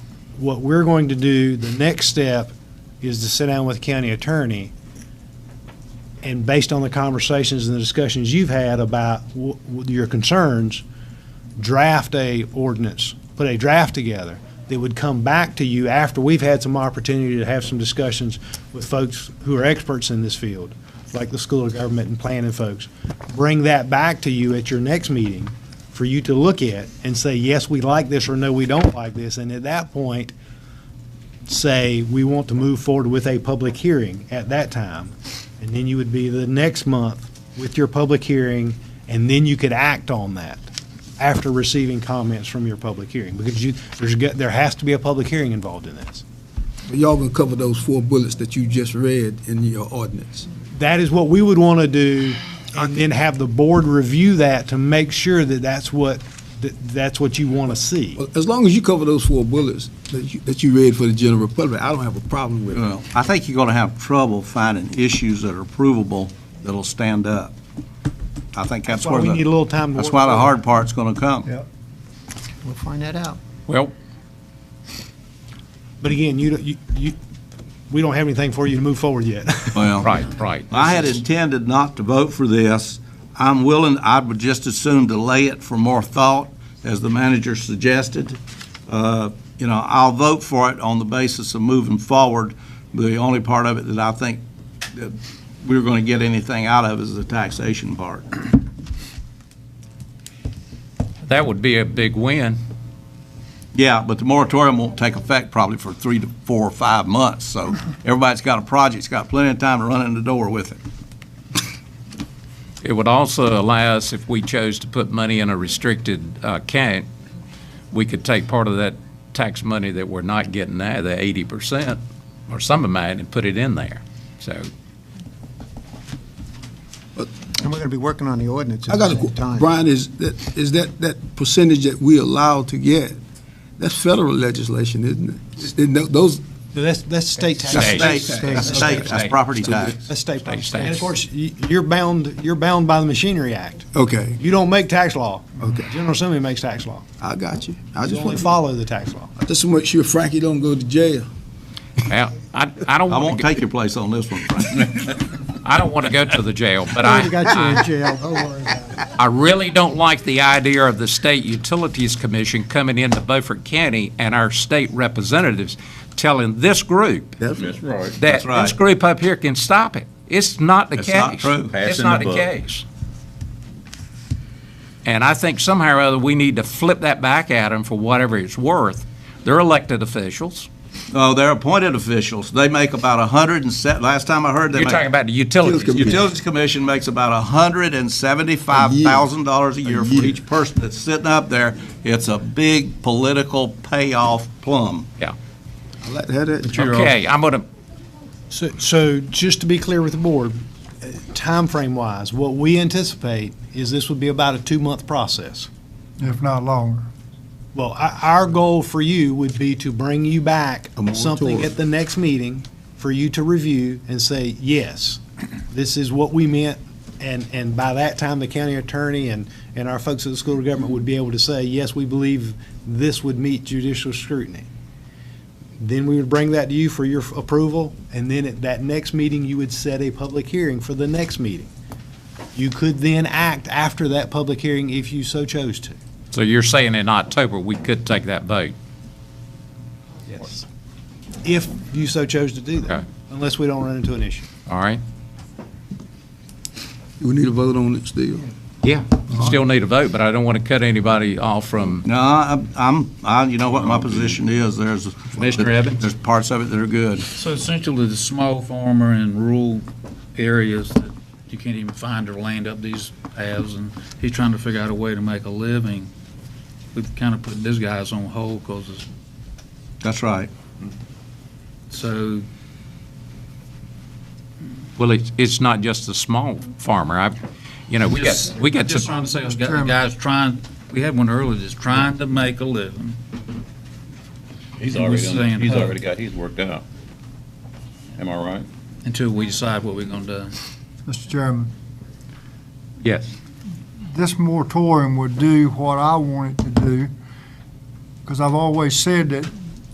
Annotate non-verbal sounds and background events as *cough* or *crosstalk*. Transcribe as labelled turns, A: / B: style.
A: what we're going to do, the next step, is to sit down with the county attorney, and based on the conversations and the discussions you've had about wh- wh- your concerns, draft a ordinance, put a draft together that would come back to you after we've had some opportunity to have some discussions with folks who are experts in this field, like the School of Government and planning folks. Bring that back to you at your next meeting for you to look at and say, yes, we like this, or no, we don't like this. And at that point, say, we want to move forward with a public hearing at that time. And then you would be the next month with your public hearing, and then you could act on that after receiving comments from your public hearing, because you, there's, got- there has to be a public hearing involved in this.
B: Y'all gonna cover those four bullets that you just read in your ordinance.
A: That is what we would want to do, and then have the board review that to make sure that that's what, that that's what you want to see.
B: Well, As long as you cover those four bullets that you, that you read for the general public, I don't have a problem with it.
C: Well, I think you're going to have trouble finding issues that are provable that'll stand up. I think that's
A: That's why
C: where the...
A: we need a little time to
C: That's
A: work
C: why the
A: through it.
C: hard part's going to come.
D: We'll find that out.
E: Well,
A: But again, you, don't- you, you, we don't have anything for you to move forward yet. *laughs*
C: Well,
E: *laughs* right, right.
C: I had intended not to vote for this. I'm willing, I would just as soon delay it for more thought, as the manager suggested. Uh, You know, I'll vote for it on the basis of moving forward. The only part of it that I think that we're going to get anything out of is the taxation part.
E: That would be a big win.
C: Yeah, but the moratorium won't take effect probably for three to four or five months, so everybody's got a project's got plenty of time to run in the door with it.
E: It would also allow us, if we chose to put money in a restricted uh, account, we could take part of that tax money that we're not getting now, the eighty percent, or some amount, and put it in there. So
D: And we're going to be working on the ordinance
B: I
D: at the
B: got a,
D: same
B: que-
D: time.
B: Brian, is that, is that, that percentage that we allowed to get, that's federal legislation, isn't it? Isn't tho- Those,
A: No, That's, that's state tax.
B: That's
C: State,
B: State
C: that's
B: tax.
C: state, that's property tax.
A: That's state tax.
E: State
A: And of
E: tax.
A: course, y- you're bound, you're bound by the Machinery Act.
B: okay,
A: You don't make tax law.
B: Okay.
A: General Assembly makes tax law.
B: I got you. I
A: You
B: just
A: only
B: want,
A: follow the tax law.
B: just to make sure Frankie don't go to jail.
E: now, I, I don't
C: I won't
E: want to,
C: take your place on this one,
E: *laughs*
C: Frank.
E: I don't want to go to the jail, but I,
D: Already *laughs* got you
E: *laughs*
D: in
E: I,
D: jail, don't worry about it.
E: I really don't like the idea of the State Utilities Commission coming into Beaufort County and our state representatives telling this group
B: That's
F: Right.
E: that
C: That's right.
E: this group up here can stop it. It's not the
C: It's
E: case.
C: not true.
E: It's
F: Passing
E: not the
F: the buck.
E: case. And I think somehow or other, we need to flip that back at them for whatever it's worth. They're elected officials.
C: No, Oh, they're appointed officials. They make about a hundred and se, last time I heard, they
E: You're talking
C: make.
E: about the utilities.
B: Utilities
C: Utilities Commission makes about a hundred and seventy-five thousand dollars a year
B: A
C: for
B: year.
C: each person that's sitting up there. It's a big political payoff plum.
B: I like to have that.
E: Okay, I'm gonna,
A: So, so just to be clear with the board, uh, timeframe wise, what we anticipate is this would be about a two-month process.
G: if not longer.
A: Well, our, our goal for you would be to bring you back
B: moratorium.
A: something at the next meeting for you to review and say, yes, this is what we meant. And, and by that time, the county attorney and, and our folks at the school of government would be able to say, yes, we believe this would meet judicial scrutiny. Then we would bring that to you for your approval, and then at that next meeting, you would set a public hearing for the next meeting. You could then act after that public hearing if you so chose to.
E: so you're saying in October, we could take that vote?
A: Yes. If you so chose to do that,
E: Okay.
A: unless we don't run into an issue.
E: All right?
B: We need a vote on it still.
E: Yeah. Still need a vote, but I don't want to cut anybody off from,
C: No, I'm- I'm, I, you know what my position is. There's.
E: Commissioner Evans?
C: There's parts of it that are good.
F: So essentially, the small farmer in rural areas that you can't even find their land up these paths, and he's trying to figure out a way to make a living. We've kind of put these guys on hold because it's,
C: That's right.
F: so,
E: well, it's, it's not just the small farmer. I, you know, we got,
F: just,
E: we got
F: just
E: some,
F: trying to say, got guys trying, we had one earlier that's trying to make a living. He's
H: already on- He's already got, he's worked out. Am I right?
F: Until we decide what we're going to do.
G: Mr. Chairman,
E: yes.
G: this moratorium would do what I want it to do, because I've always said that